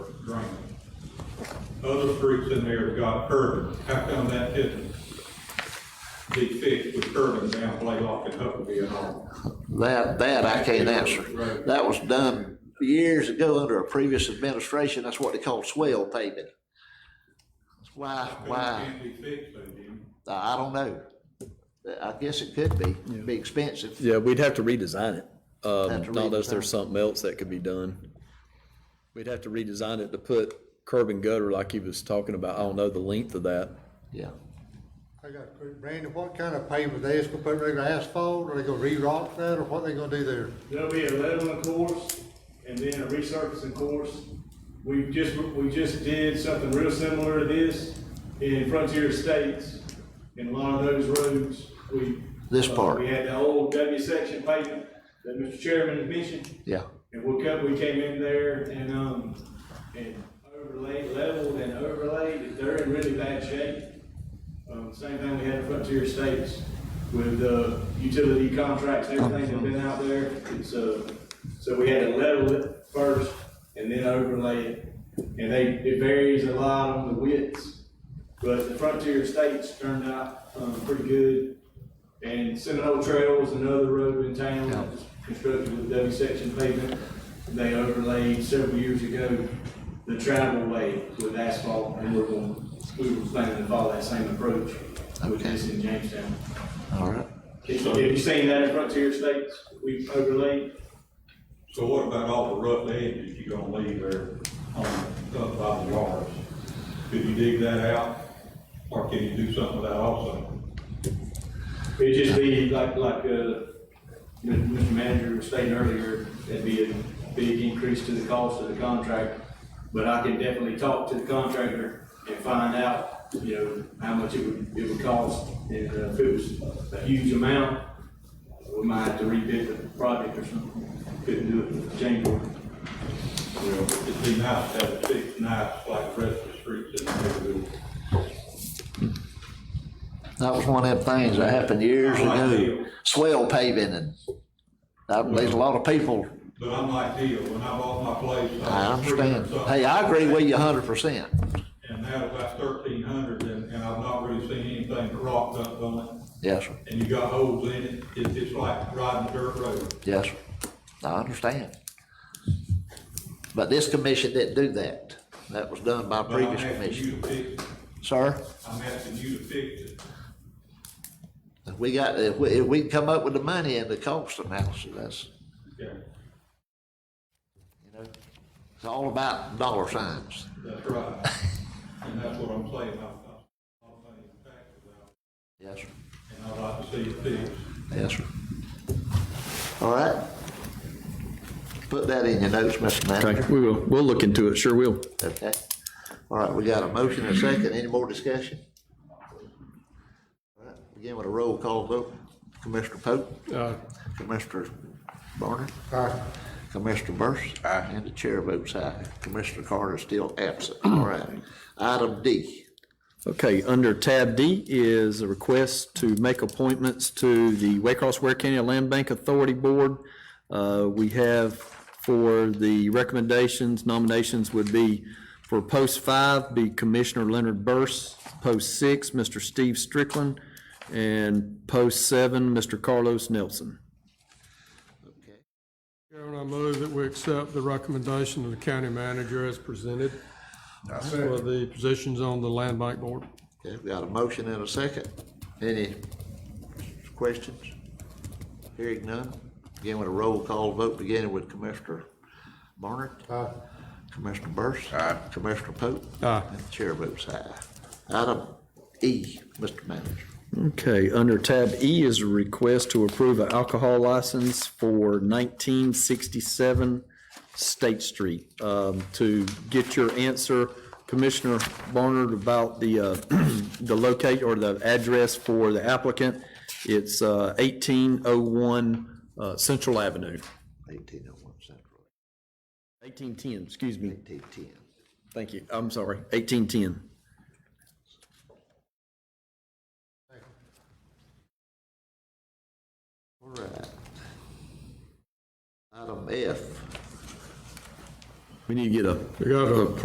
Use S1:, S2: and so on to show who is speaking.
S1: other streets in there have got curbing. How come that didn't be fixed with curbing down Blaylock and Huckabee and all?
S2: That, that I can't answer.
S1: Right.
S2: That was done years ago under a previous administration. That's what they called swell paving. That's Why,
S1: That
S2: why,
S1: can't be fixed, though, Jim.
S2: I don't know. I guess it could be, It'd be expensive.
S3: Yeah, we'd have to redesign it,
S2: Have to
S3: um, not unless
S2: redesign.
S3: there's something else that could be done. We'd have to redesign it to put curb and gutter like he was talking about, I don't know the length of that.
S2: Yeah.
S4: I got a quick, Brandon, what kind of pavement, they just gonna put regular asphalt, or they gonna re-rock that, or what they gonna do there?
S5: There'll be a leveling course and then a resurfacing course. We just, we just did something real similar to this in Frontier States. In a lot of those roads, we.
S2: This
S5: uh,
S2: part.
S5: We had the old W section pavement that Mr. Chairman mentioned.
S2: Yeah.
S5: And we cut, we came in there and, um, and overlaid, leveled and overlaid, they're in really bad shape. Um, same thing we had in Frontier States with, uh, utility contracts, everything that's been out there, it's, uh, so we had to level it first and then overlay it. And they, it varies a lot on the widths, but the Frontier States turned out, um, pretty good. And Seminole Trail was another road in town that was constructed with W section pavement. They overlaid several years ago the travel way with asphalt and we're going, we were planning to follow that same approach with this in Jamestown.
S2: All right.
S5: Have you- have you seen that in Frontier States? We've overlaid.
S1: So what about all the rough edges you gonna leave there on, up by the yards? Could you dig that out? Or can you do something with that also?
S5: It'd just be like, like, uh, Mr. Manager was stating earlier, it'd be a big increase to the cost of the contract. But I can definitely talk to the contractor and find out, you know, how much it would, it would cost. And uh, if it was a huge amount, we might have to rebid the project or something. Couldn't do it with the change order.
S1: Well, it'd be nice to have it fixed nice like the rest of the streets in the neighborhood.
S2: That was one of them things that happened years ago. Swell paving and uh, there's a lot of people,
S1: But I'm like Neil, when I bought my place. was
S2: I
S1: three
S2: understand.
S1: hundred something.
S2: Hey, I agree with you hundred percent.
S1: And now it's about thirteen hundred and, and I've not really seen anything but rock up on
S2: Yes, sir.
S1: it. And you got holes in it, it's, it's like riding a dirt road.
S2: Yes, sir. I understand. But this commission didn't do that. That was done by a
S1: But I'm
S2: previous
S1: asking
S2: commission.
S1: you to fix, it.
S2: Sir,
S1: I'm asking you to fix it.
S2: if we got, if we, if we can come up with the money and the cost analysis, that's,
S1: Okay,
S2: you know, it's all about dollar signs.
S1: that's right. And that's what I'm saying, I'm, I'm, I'm paying taxes out,
S2: Yes, sir.
S1: and I'd like to see it fixed.
S2: Yes, sir. All right. Put that in your notes, Mr. Manager.
S3: we will, we'll look into it, sure will.
S2: Okay. All right, we got a motion and a second. Any more discussion? All right, Begin with a roll call vote. Commissioner Pope? Commissioner Barnard?
S4: Aye.
S2: Commissioner Burris? And the chair votes aye. Commissioner Carter is still absent. All right. Item D.
S3: Okay, under tab D is a request to make appointments to the Waycross Ware County Land Bank Authority Board. Uh, we have for the recommendations, nominations would be for post five, be Commissioner Leonard Burse, post six, Mr. Steve Strickland, and post seven, Mr. Carlos Nelson.
S6: Chairman, I move that we accept the recommendation of the county manager as presented for the positions on the land bank board.
S2: Okay, we got a motion and a second. Any questions? Hearing none. Begin with a roll call vote, beginning with Commissioner Barnard.
S4: Aye.
S2: Commissioner Burris. Commissioner Pope.
S6: Aye.
S2: And the chair votes aye. Item E, Mr. Manager.
S3: Okay, under tab E is a request to approve an alcohol license for nineteen sixty-seven State Street. Um, to get your answer, Commissioner Barnard, about the, uh, the locate or the address for the applicant, it's, uh, eighteen oh one, uh, Central Avenue.
S2: Eighteen oh one Central,
S3: Eighteen ten, excuse me,
S2: eighteen ten.
S3: thank you, I'm sorry, eighteen ten.
S2: All right. Item F,
S3: We need to get a
S6: We got a